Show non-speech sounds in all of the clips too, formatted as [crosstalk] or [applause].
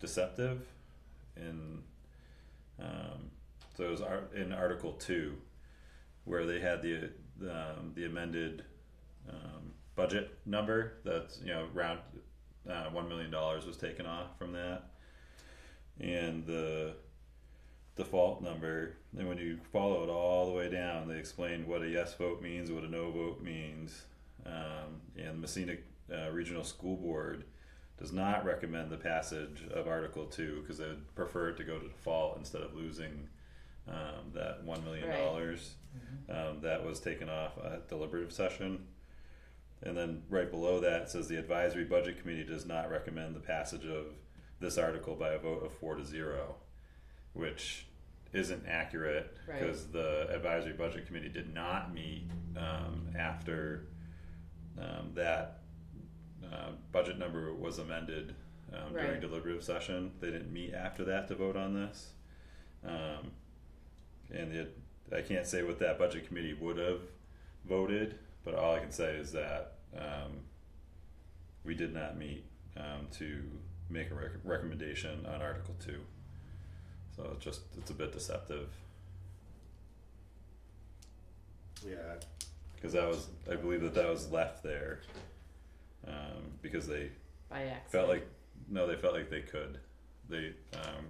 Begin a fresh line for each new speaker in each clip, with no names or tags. deceptive in um, so it was ar- in Article Two, where they had the um, the amended um, budget number that's you know round uh, one million dollars was taken off from that, and the default number. And when you follow it all the way down, they explain what a yes vote means, what a no vote means, um, and Messina uh, Regional School Board does not recommend the passage of Article Two because they would prefer it to go to default instead of losing um, that one million dollars um, that was taken off at deliberative session. And then right below that says the advisory budget committee does not recommend the passage of this article by a vote of four to zero, which isn't accurate
Right.
because the advisory budget committee did not meet um, after um, that uh, budget number was amended um, during
Right.
deliberative session. They didn't meet after that to vote on this. Um, and the, I can't say what that budget committee would have voted, but all I can say is that, um, we did not meet, um, to make a rec- recommendation on Article Two. So it's just, it's a bit deceptive,
Yeah,
cause that was, I believe that that was left there. Um, because they
by accident.
felt like, no, they felt like they could, they, um,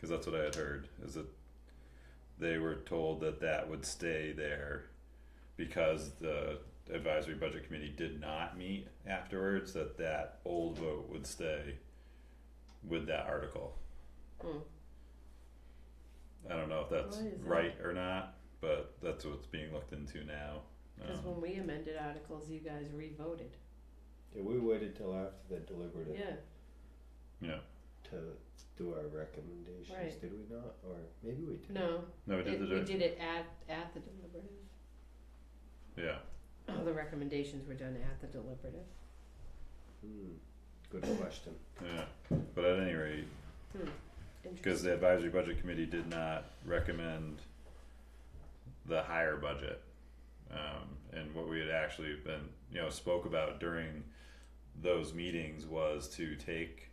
cause that's what I had heard, is that they were told that that would stay there because the advisory budget committee did not meet afterwards, that that old vote would stay with that article.
Hmm.
I don't know if that's
Why is that?
right or not, but that's what's being looked into now.
Cause
Um,
when we amended articles, you guys re-voted,
yeah, we waited till after the deliberative
yeah,
Yeah,
to do our recommendations,
Right.
did we not? Or maybe we did.
no,
no, we
it,
did the,
we
dir-
did it at, at the deliberative.
yeah,
All Oh, the recommendations were done at the deliberative,
Hmm. Good question.
yeah, but at any rate, Cause
Hmm. interesting,
the advisory budget committee did not recommend the higher budget. Um, and what we had actually been, you know, spoke about during those meetings was to take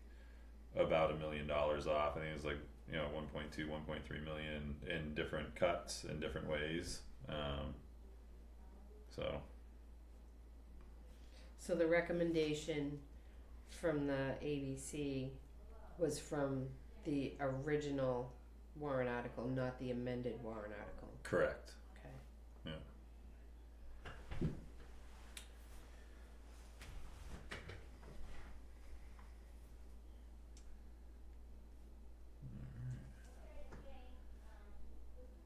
about a million dollars off, I think it was like, you know, one point two, one point three million in different cuts in different ways, um. So,
so the recommendation from the ABC was from the original warrant article, not the amended warrant article,
correct,
okay?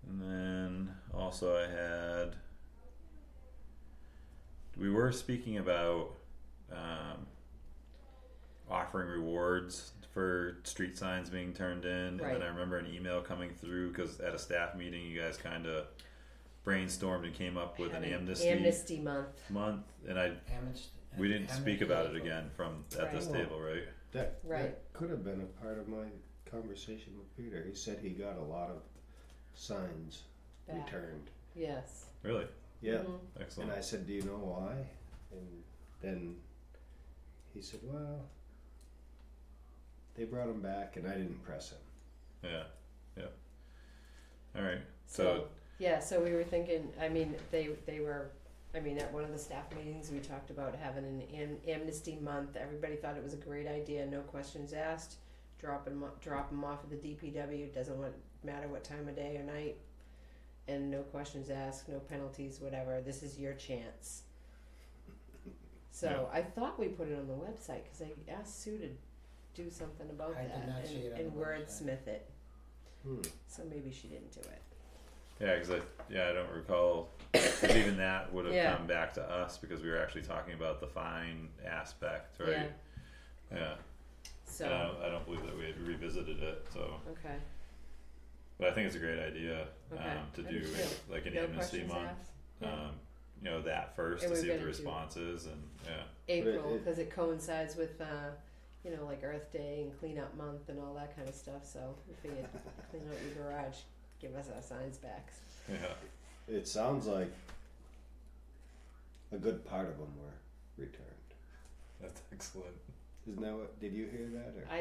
And then also I had we were speaking about um, offering rewards for street signs being turned in, and
Right.
then I remember an email coming through because at a staff meeting you guys kind of brainstormed and came up with an
Having
amnesty
Amnesty month,
month, and I we didn't speak about it again from at this
Right.
table, right?
That,
Right.
that could have been a part of my conversation with Peter. He said he got a lot of signs
back,
returned.
yes.
Really
Yeah.
Mhm.
excellent.
And I said, Do you know why? And then he said, Well, they brought him back and I didn't press him.
yeah, yeah. All right.
So, yeah, so we were thinking, I mean, they, they were, I mean, at one of the staff meetings, we talked about having an am- amnesty month. Everybody thought it was a great idea, no questions asked. Drop them, drop them off at the DPW, doesn't want, matter what time of day or night. And no questions asked, no penalties, whatever, this is your chance. So I thought we put it on the website, cause I asked Sue to do something about
I did
that
not see it
and,
on
and
the website.
wordsmith it,
Hmm.
so maybe she didn't do it.
Yeah, because I yeah I don't recall
[coughs]
'cause even that would have
Yeah.
come back to us because we were actually talking about the fine aspect, right? Yeah.
So.
And I, don't, I don't believe that we had revisited it. So,
Okay.
but I think it's a great idea
Okay.
um, to
I
do
do too.
like an
No
amnesty
questions
month.
asked. Yeah.
Um, you know that first
And
to
we're
see what the
gonna do-
response is, and yeah, [laughs]
April,
it-
because it coincides with, uh, you know, like Earth Day and Clean Up Month and all that kind of stuff. So we figured, clean out your garage, give us our signs back.
yeah,
It sounds like a good part of them were returned.
that's excellent.
Isn't that what? Did you hear that? Or?